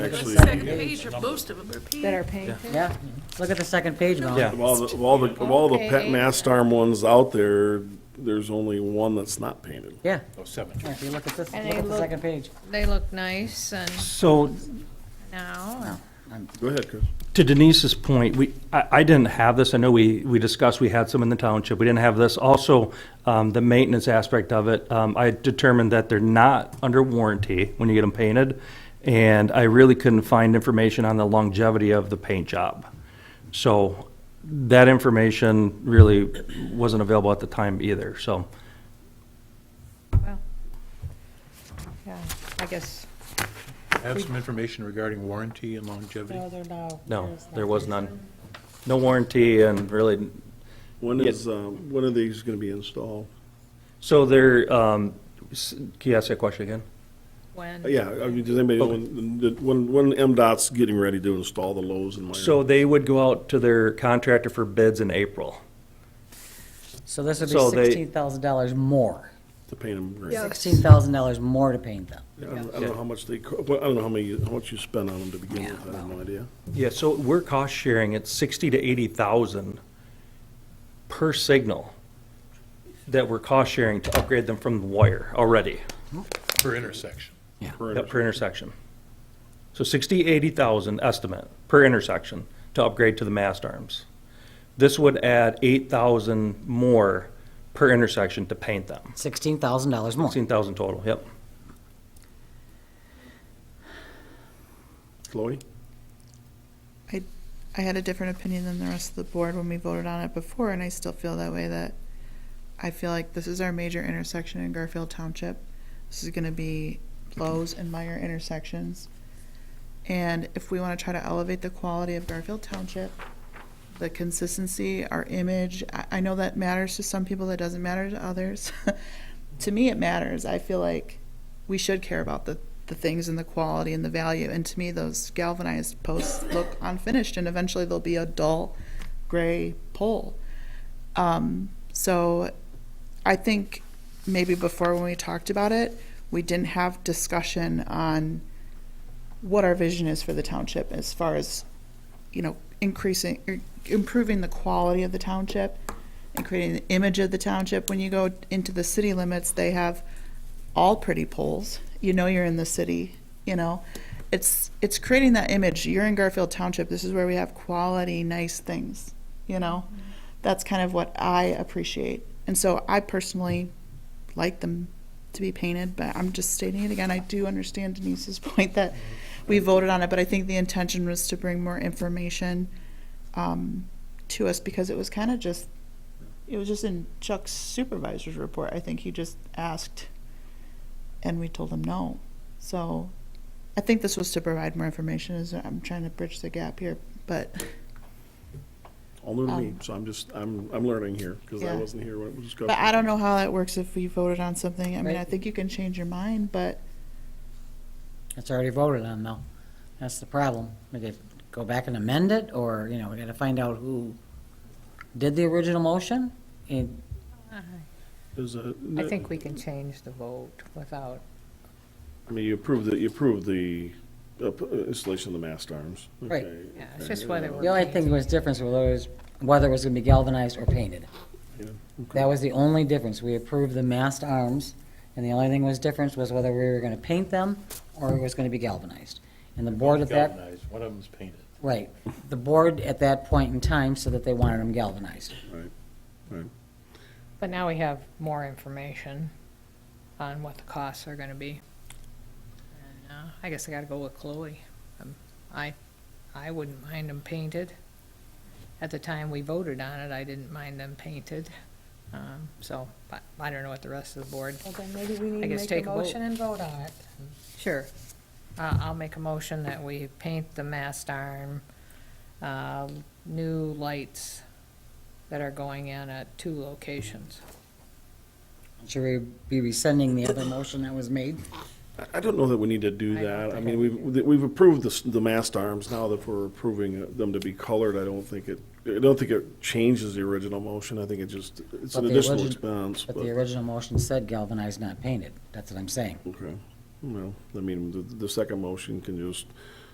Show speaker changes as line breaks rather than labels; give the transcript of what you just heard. actually.
Second page, or most of them are
that are
pink.
paying. attention.
Yeah, look at the second page, Mel.
Of all the, of all the, of all the pet
Okay.
mast arm ones out there, there's only one that's not painted.
Yeah,
Oh, seven.
Yeah, if you look at this,
And
look
they
at the
look-
second page.
They look nice and
So
now,
Go ahead, Chris.
to Denise's point, we, I, I didn't have this. I know we, we discussed, we had some in the township. We didn't have this. Also, um, the maintenance aspect of it, um, I determined that they're not under warranty when you get them painted. And I really couldn't find information on the longevity of the paint job. So that information really wasn't available at the time either, so.
well, yeah, I guess.
Have some information regarding warranty and longevity.
No, there, no.
No,
there's
there
not.
was none. No warranty and really,
When
Yeah.
is, um, when are these gonna be installed?
so there, um, s- can you ask that question again?
When?
Uh, Yeah, I mean, does anybody, know when, the- when, when MDOT's getting ready to install the Lowe's in my
So they would go out to their contractor for bids in April.
So this would
So
be
they-
sixteen thousand dollars more.
to paint them green?
Yeah.
Sixteen thousand dollars more to paint them.
I don't I don't know how much they, co- well, I don't know how many, how much you spent on them to begin with, I have no idea.
Yeah, so we're cost sharing at sixty to eighty thousand per signal that we're cost sharing to upgrade them from the wire already
Per intersection.
per
uh, per intersection. So sixty, eighty thousand estimate per intersection to upgrade to the mast arms. This would add eight thousand more per intersection to paint them.
Sixteen thousand dollars more.
Sixteen thousand total, yep.
Chloe?
I had a different opinion than the rest of the board when we voted on it before, and I still feel that way, that I feel like this is our major intersection in Garfield Township. This is gonna be Lowe's and Meyer intersections. And if we wanna try to elevate the quality of Garfield Township, the consistency, our image, I, I know that matters to some people, that doesn't matter to others. To me, it matters. I feel like we should care about the, the things and the quality and the value. And to me, those galvanized posts look unfinished, and eventually they'll be a dull gray pole. Um, so I think maybe before when we talked about it, we didn't have discussion on what our vision is for the township as far as, you know, increasing, er, improving the quality of the township and creating the image of the township. When you go into the city limits, they have all pretty poles. You know you're in the city, you know. It's it's creating that image. You're in Garfield Township. This is where we have quality, nice things, you know. That's kind of what I appreciate. And so I personally like them to be painted, but I'm just stating it again. I do understand Denise's point that we voted on it, but I think the intention was to bring more information um, to us because it was kind of just it was just in Chuck's supervisor's report. I think he just asked and we told them no. So I think this was to provide more information as I'm trying to bridge the gap here, but
All new to me,
Um,
so I'm just, I'm, I'm learning here, because I
Yeah.
wasn't here when it was discovered.
but I don't know how that works if we voted on something. I mean, I
Right.
think you can change your mind, but
It's already voted on though. That's the problem. We could go back and amend it, or, you know, we gotta find out who did the original motion. And
Is a-
I think we can change the vote without,
I mean, you approved the, you approved the uh, p- uh, installation of the mast arms.
Right.
Okay. uh,
yeah, it's just whether
the
we're.
only thing that was difference was whether it was gonna be galvanized or painted.
Yeah,
That was the only difference. We approved the mast arms, and the only thing was difference was whether we were gonna paint them or it was gonna be galvanized. And the board at that
Galvanized, one of them's painted.
Right. The board at that point in time said that they wanted them galvanized.
But now we have more information on what the costs are gonna be. And, uh, I guess I gotta go with Chloe. Um, I, I wouldn't mind them painted. At the time we voted on it, I didn't mind them painted. Um, so, but I don't know what the rest of the board,
Well, then maybe we
I
need
guess take a motion and vote on it.
Sure.
Uh, I'll make a motion that we paint the mast arm, uh, new lights that are going in at two locations.
Should we be rescinding the other motion that was made?
I- I don't know that we need to do
I don't
that. I
think
mean,
I
we've, we've approved the, s- the mast arms. Now that we're approving uh, them to be colored, I don't think it, I don't think it changes the original motion. I think it just, it's
But
an
the
additional
origin-
expense,
But
but,
the original motion said galvanized, not painted. That's what I'm saying.
okay. Well, I mean, the, the second motion can just